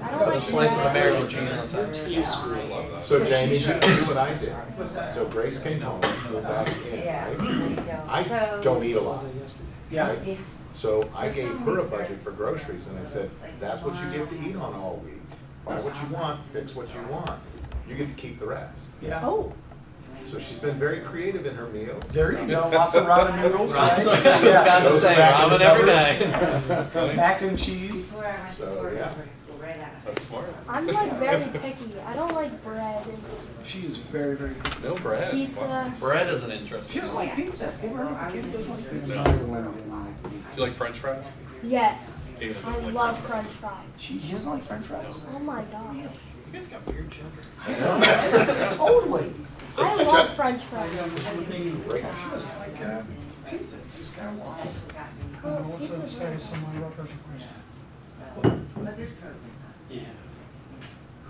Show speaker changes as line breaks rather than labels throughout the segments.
a slice of American cheese on top.
So Jamie, you do what I did. So Grace came home, we're back in, right? I don't eat a lot.
Yeah.
right? So I gave her a budget for groceries and I said, that's what you get to eat on all week. Buy what you want, fix what you want. You get to keep the rest.
Yeah.
Oh,
So she's been very creative in her meals.
There you go, lots of ramen noodles, right?
Ramen.
Yeah.
Gotta say, ramen every night.
Mac and cheese.
So, yeah.
That's smart.
I'm like very picky. I don't like bread
She is very, very good.
No bread.
and pizza.
Bread is an interesting.
She doesn't like pizza. Ever heard of a kid who doesn't like pizza?
Do you like French fries?
Yes.
Dana doesn't
I
like
love
French
french fries.
She he doesn't like french fries.
Oh my god.
You guys got weird gender.
Totally.
I love french fries.
Great.
She doesn't like uh, pizza. It's just kind of wild.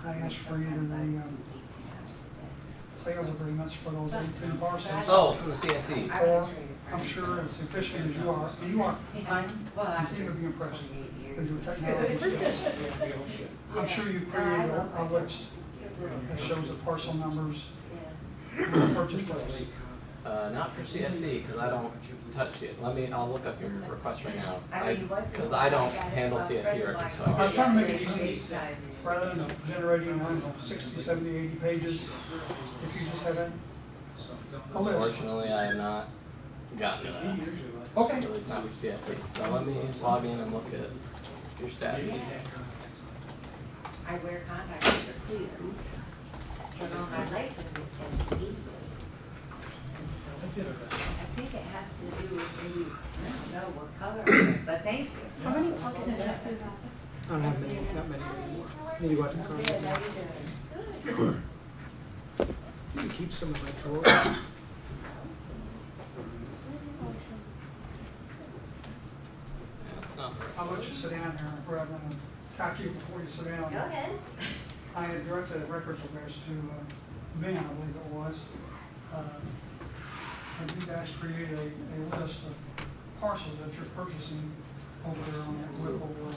I asked for you to bring, um, sales agreements for those eighteen parcels.
Oh, from the CSE.
Or, I'm sure as efficient as you are, and you are, I continue to be impressed with your technology skills. I'm sure you've created a a list that shows the parcel numbers and the purchase list.
Uh, not for CSE, because I don't touch it. Let me, I'll look up your request right now. Because I don't handle CSE records, so
I
I
was
can't.
trying to make it easy, rather than generating, I don't know, sixty, seventy, eighty pages, if you just have a, a list.
Fortunately, I have not gotten to that.
Okay,
At least not for CSE. E. So let me log in and look at your stats.
I wear contacts that are clear, but on my license it says easily. I think it has to do with maybe, I don't know what color, but thank you.
How many pocket minutes do you have?
I don't have many, not many anymore. Need to go out and
Good,
grab
how
them.
you doing?
You can keep some in my drawer.
That's not the right.
I'll let you sit down there rather than talk to you before you sit down.
Go ahead.
I had directed a records affairs to uh, Ben, I believe it was. Uh, And you guys created a, a list of parcels that you're purchasing over there on that Whipple or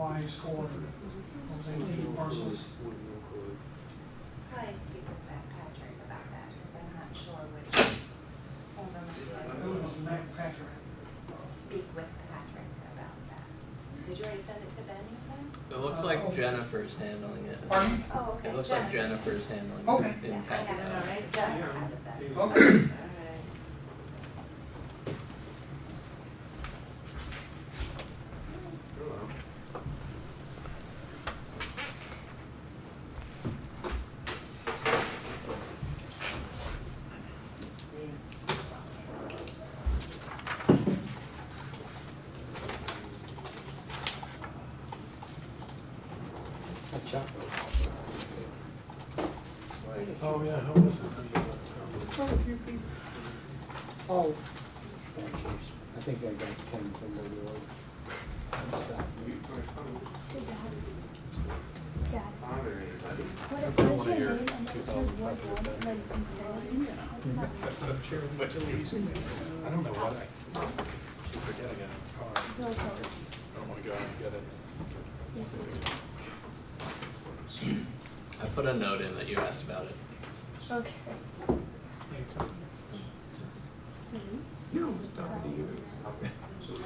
Wise corridor. Those eighteen parcels.
Probably speak with Pat Patrick about that, because I'm not sure which, some of them are
Who was Mac Patrick?
Speak with Patrick about that. Did you already send it to Ben, you said?
It looks like Jennifer's handling it.
Pardon?
Oh, okay.
It looks like
Jeff.
Jennifer's handling
Okay.
it in
Yeah, I have it
Packet.
already, Jeff has it
Okay.
then. Alright.
Oh, yeah, how was it?
Oh. I think I got ten from the Lord. That's, uh,
Dad. What it says your name and it says what one, and then you can say it.
I don't know what I, keep forgetting it. I
It's not real close.
don't wanna go out and get it.
This is-
I put a note in that you asked about it.
Okay.
No, it's not to you.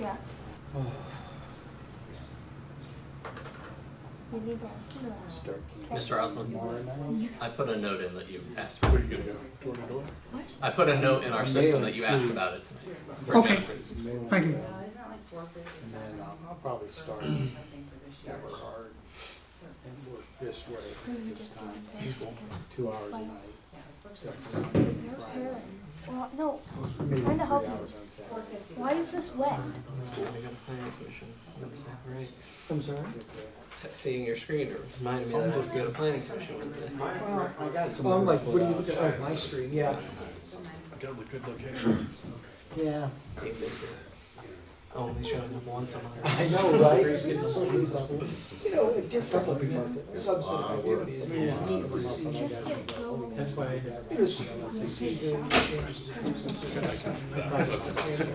Yeah. We need that.
start keeping
Mr. Osborne,
tomorrow night.
I put a note in that you asked about it.
Door to door?
What?
I put a note in our system that you asked about it tonight. for
Okay.
Jennifer's.
Mail
Thank you.
it
Well,
out,
isn't it like four fifty
And
seven
then
or
I'll, I'll probably start
something for this year?
Everhard and work this
We
way
need
this
to
time,
do it because
two hours a
Like-
night.
Yeah, it's supposed to be
Six, Friday,
they're parent. Well, no,
maybe
Kinda
three
help
hours
me.
on Saturday.
4:50.
why is this wet?
I'm sorry?
Seeing your screen reminded me that I have to go to planning commission Wednesday.
Well, I got some.
Oh, I'm like,
other
what are you
pull-outs.
looking at? Oh, my screen, yeah.
Go to the good locations.
Yeah,
Only showing up once a month.
I know, right? You know, a different subset of activities, we just need to see.
Just get going.
That's why I did.
Just see, see, changes.